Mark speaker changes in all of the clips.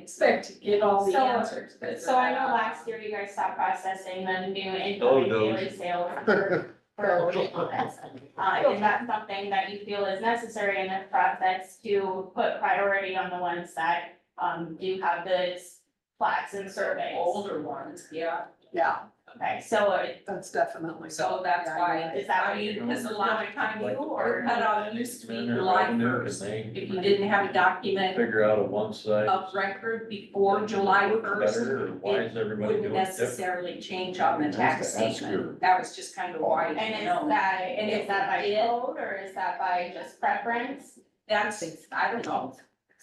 Speaker 1: expect to get all the
Speaker 2: So-
Speaker 1: answers. but-
Speaker 2: So I know last year you guys stopped processing the new
Speaker 3: Oh,
Speaker 2: incoming
Speaker 3: no.
Speaker 2: daily sales for, for original events. Uh, is that something that you feel is necessary in this process to put priority on the ones that, um, do have those plaques and surveys?
Speaker 1: Older ones, yeah,
Speaker 4: Yeah,
Speaker 2: Okay, so uh, it-
Speaker 4: that's definitely.
Speaker 1: so that's
Speaker 4: Yeah,
Speaker 1: why.
Speaker 2: is that what you,
Speaker 1: Because a lot of time you or cut off used to be
Speaker 3: Revenue,
Speaker 1: lifers,
Speaker 3: and they
Speaker 1: if you didn't have a document
Speaker 3: Figure out a one side.
Speaker 1: of record before July first,
Speaker 3: Better, or why is everybody
Speaker 1: wouldn't
Speaker 3: doing it different?
Speaker 1: necessarily change on the
Speaker 3: Who's
Speaker 1: tax
Speaker 3: to ask
Speaker 1: statement.
Speaker 3: your-
Speaker 1: That was just kind of why,
Speaker 2: and
Speaker 1: you
Speaker 2: is
Speaker 1: know,
Speaker 2: that, and is that by
Speaker 1: Yeah.
Speaker 2: code or is that by just preference?
Speaker 1: that's, I don't know.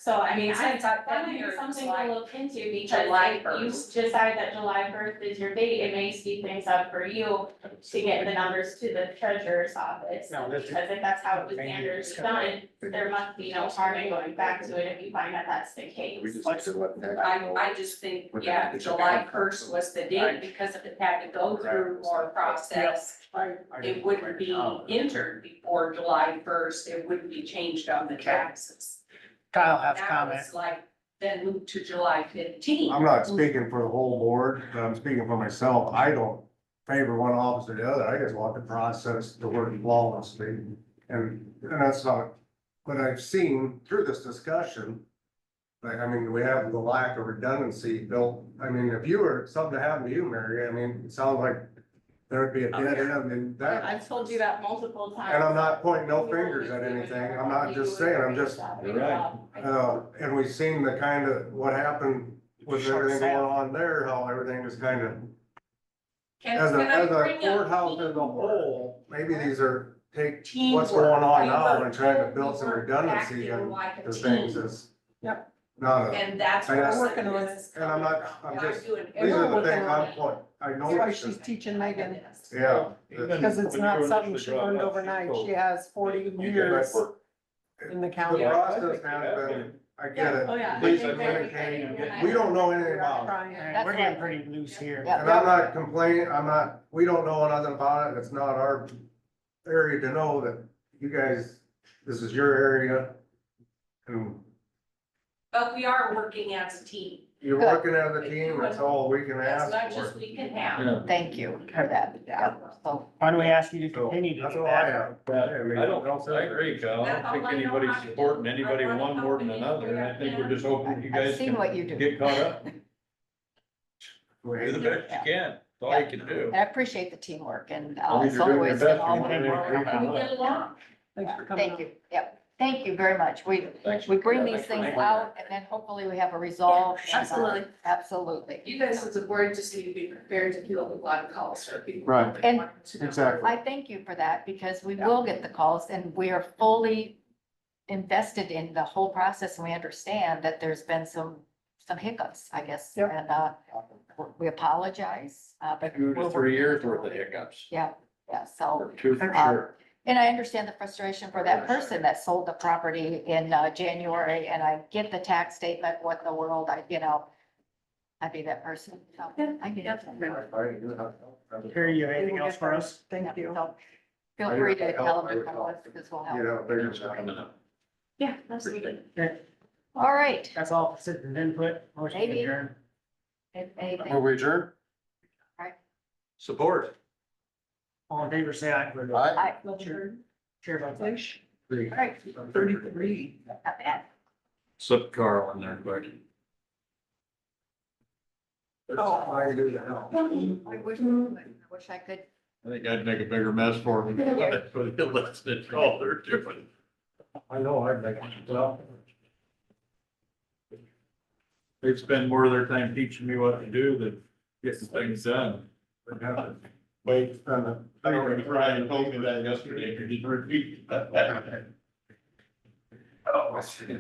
Speaker 2: So I mean, I,
Speaker 1: Since I've
Speaker 2: That
Speaker 1: been
Speaker 2: might
Speaker 1: here,
Speaker 2: be
Speaker 1: it's
Speaker 2: something
Speaker 1: like,
Speaker 2: to look into because
Speaker 1: July
Speaker 2: if you
Speaker 1: 1st.
Speaker 2: decide that July first is your date, it may speed things up for you to get the numbers to the treasurer's office.
Speaker 5: No, that's.
Speaker 2: Because if that's how it was
Speaker 5: Maybe it's
Speaker 2: standards
Speaker 5: kind
Speaker 2: done, there must be no harm in going back to it if you find that that's the case.
Speaker 1: I, I just think, yeah, July first was the date because if it had to go through more process, it wouldn't be
Speaker 6: Oh,
Speaker 1: entered before July first, it wouldn't be changed on the taxes.
Speaker 5: Kyle has
Speaker 1: Now
Speaker 5: comment.
Speaker 1: it's like, then move to July fifteenth.
Speaker 6: I'm not speaking for the whole board, but I'm speaking for myself. I don't favor one officer or the other. I just want the process to work flawlessly. And, and that's not, what I've seen through this discussion, like, I mean, we have the lack of redundancy built. I mean, if you were, something to happen to you, Mary, I mean, it sounds like there'd be a dead end in that.
Speaker 2: I've told you that multiple times.
Speaker 6: And I'm not pointing no fingers at anything. I'm not just saying, I'm just
Speaker 3: You're right.
Speaker 6: uh, and we've seen the kind of, what happened with everything going on there, how everything just kind of, as a, as a courthouse as a whole, maybe these are, take what's going on now and trying to build some redundancy and the things is.
Speaker 4: Yep.
Speaker 6: Not a,
Speaker 1: And that's
Speaker 6: I
Speaker 1: where
Speaker 6: guess-
Speaker 1: the business is
Speaker 6: and I'm
Speaker 1: coming
Speaker 6: not-
Speaker 1: from.
Speaker 6: I'm
Speaker 1: They're
Speaker 6: just-
Speaker 1: doing
Speaker 6: these
Speaker 1: everything.
Speaker 6: are the things I'm, point- I
Speaker 4: That's why
Speaker 6: noticed,
Speaker 4: she's teaching Megan,
Speaker 6: yeah.
Speaker 4: because it's not something she learned overnight. She has forty years in the
Speaker 6: The
Speaker 4: county.
Speaker 6: process has been, I get it,
Speaker 2: Oh, yeah.
Speaker 3: Please, I
Speaker 6: we don't know anything about it.
Speaker 4: Trying,
Speaker 5: And we're
Speaker 4: that's
Speaker 5: getting
Speaker 4: right.
Speaker 5: pretty loose here.
Speaker 4: Yeah.
Speaker 6: And I'm not complaining, I'm not, we don't know nothing about it, it's not our area to know that you guys, this is your area. And
Speaker 1: But we are working as a team.
Speaker 6: you're working as a team, that's all we can
Speaker 1: As
Speaker 6: ask
Speaker 1: much
Speaker 6: for.
Speaker 1: as we can have.
Speaker 3: Yeah,
Speaker 7: Thank you for that, yeah, so.
Speaker 5: Why do we ask you to
Speaker 6: So,
Speaker 5: continue to
Speaker 6: that's
Speaker 5: do
Speaker 6: all I
Speaker 5: that?
Speaker 6: have.
Speaker 3: but I don't, I agree, Kyle. I don't think anybody's supporting anybody one more than another, and I think we're just hoping you
Speaker 7: I've
Speaker 3: guys
Speaker 7: seen
Speaker 3: can
Speaker 7: what you do.
Speaker 3: get caught up, do the best you
Speaker 6: Wait,
Speaker 3: can, that's all you can do.
Speaker 7: And I appreciate the teamwork and
Speaker 3: I
Speaker 7: uh,
Speaker 3: mean,
Speaker 7: it's
Speaker 3: you're doing your
Speaker 7: always been
Speaker 3: best,
Speaker 7: all.
Speaker 3: you're doing your
Speaker 7: Yeah,
Speaker 3: best.
Speaker 1: Get along.
Speaker 4: Thanks for coming.
Speaker 7: Thank you, yep, thank you very much. We,
Speaker 3: Thanks.
Speaker 7: we bring
Speaker 3: Yeah,
Speaker 7: these
Speaker 3: thanks for
Speaker 7: things
Speaker 3: making
Speaker 7: out and then hopefully we have a resolve. and, uh,
Speaker 2: Absolutely.
Speaker 7: Absolutely.
Speaker 2: You guys as a board just need to be prepared to deal with a lot of calls for people.
Speaker 6: Right,
Speaker 2: that want to know.
Speaker 6: exactly.
Speaker 7: I thank you for that because we will get the calls and we are fully invested in the whole process and we understand that there's been some, some hiccups, I guess.
Speaker 4: Yep.
Speaker 7: And, uh, we apologize, uh, but.
Speaker 3: Two to
Speaker 7: we're
Speaker 3: three
Speaker 7: working
Speaker 3: years
Speaker 7: on it.
Speaker 3: worth of hiccups,
Speaker 7: Yeah, yeah, so.
Speaker 3: or two for
Speaker 7: Uh,
Speaker 3: sure.
Speaker 7: And I understand the frustration for that person that sold the property in uh, January, and I get the tax statement, what in the world, I, you know. I'd be that person, so I get it.
Speaker 5: Here, you have anything else for us?
Speaker 4: Thank you.
Speaker 7: So, Feel free to tell them if I want, because we'll
Speaker 6: You
Speaker 7: help.
Speaker 6: know, they're
Speaker 3: It's
Speaker 6: just.
Speaker 3: coming up.
Speaker 2: Yeah, absolutely.
Speaker 7: All right,
Speaker 5: That's all, sit and input, motion
Speaker 7: Maybe.
Speaker 5: adjourned.
Speaker 7: if anything.
Speaker 6: Will we adjourn?
Speaker 3: Support.
Speaker 5: All in favor, say aye.
Speaker 7: Aye.
Speaker 5: Chair votes aye.
Speaker 4: Thirty-three.
Speaker 7: Not bad.
Speaker 3: Slip Carl in there quick.
Speaker 6: Oh, I do that.
Speaker 7: I wish, I wish I could.
Speaker 3: I think I'd make a bigger mess for them. But it lets it all they're doing.
Speaker 6: I know, I'd make it, well,
Speaker 3: They spend more of their time teaching me what to do than getting things done.
Speaker 6: I'd have to
Speaker 3: Wait, uh,
Speaker 6: spend a-
Speaker 3: I remember Brian told me that yesterday, and he repeated that.
Speaker 6: Oh, I see.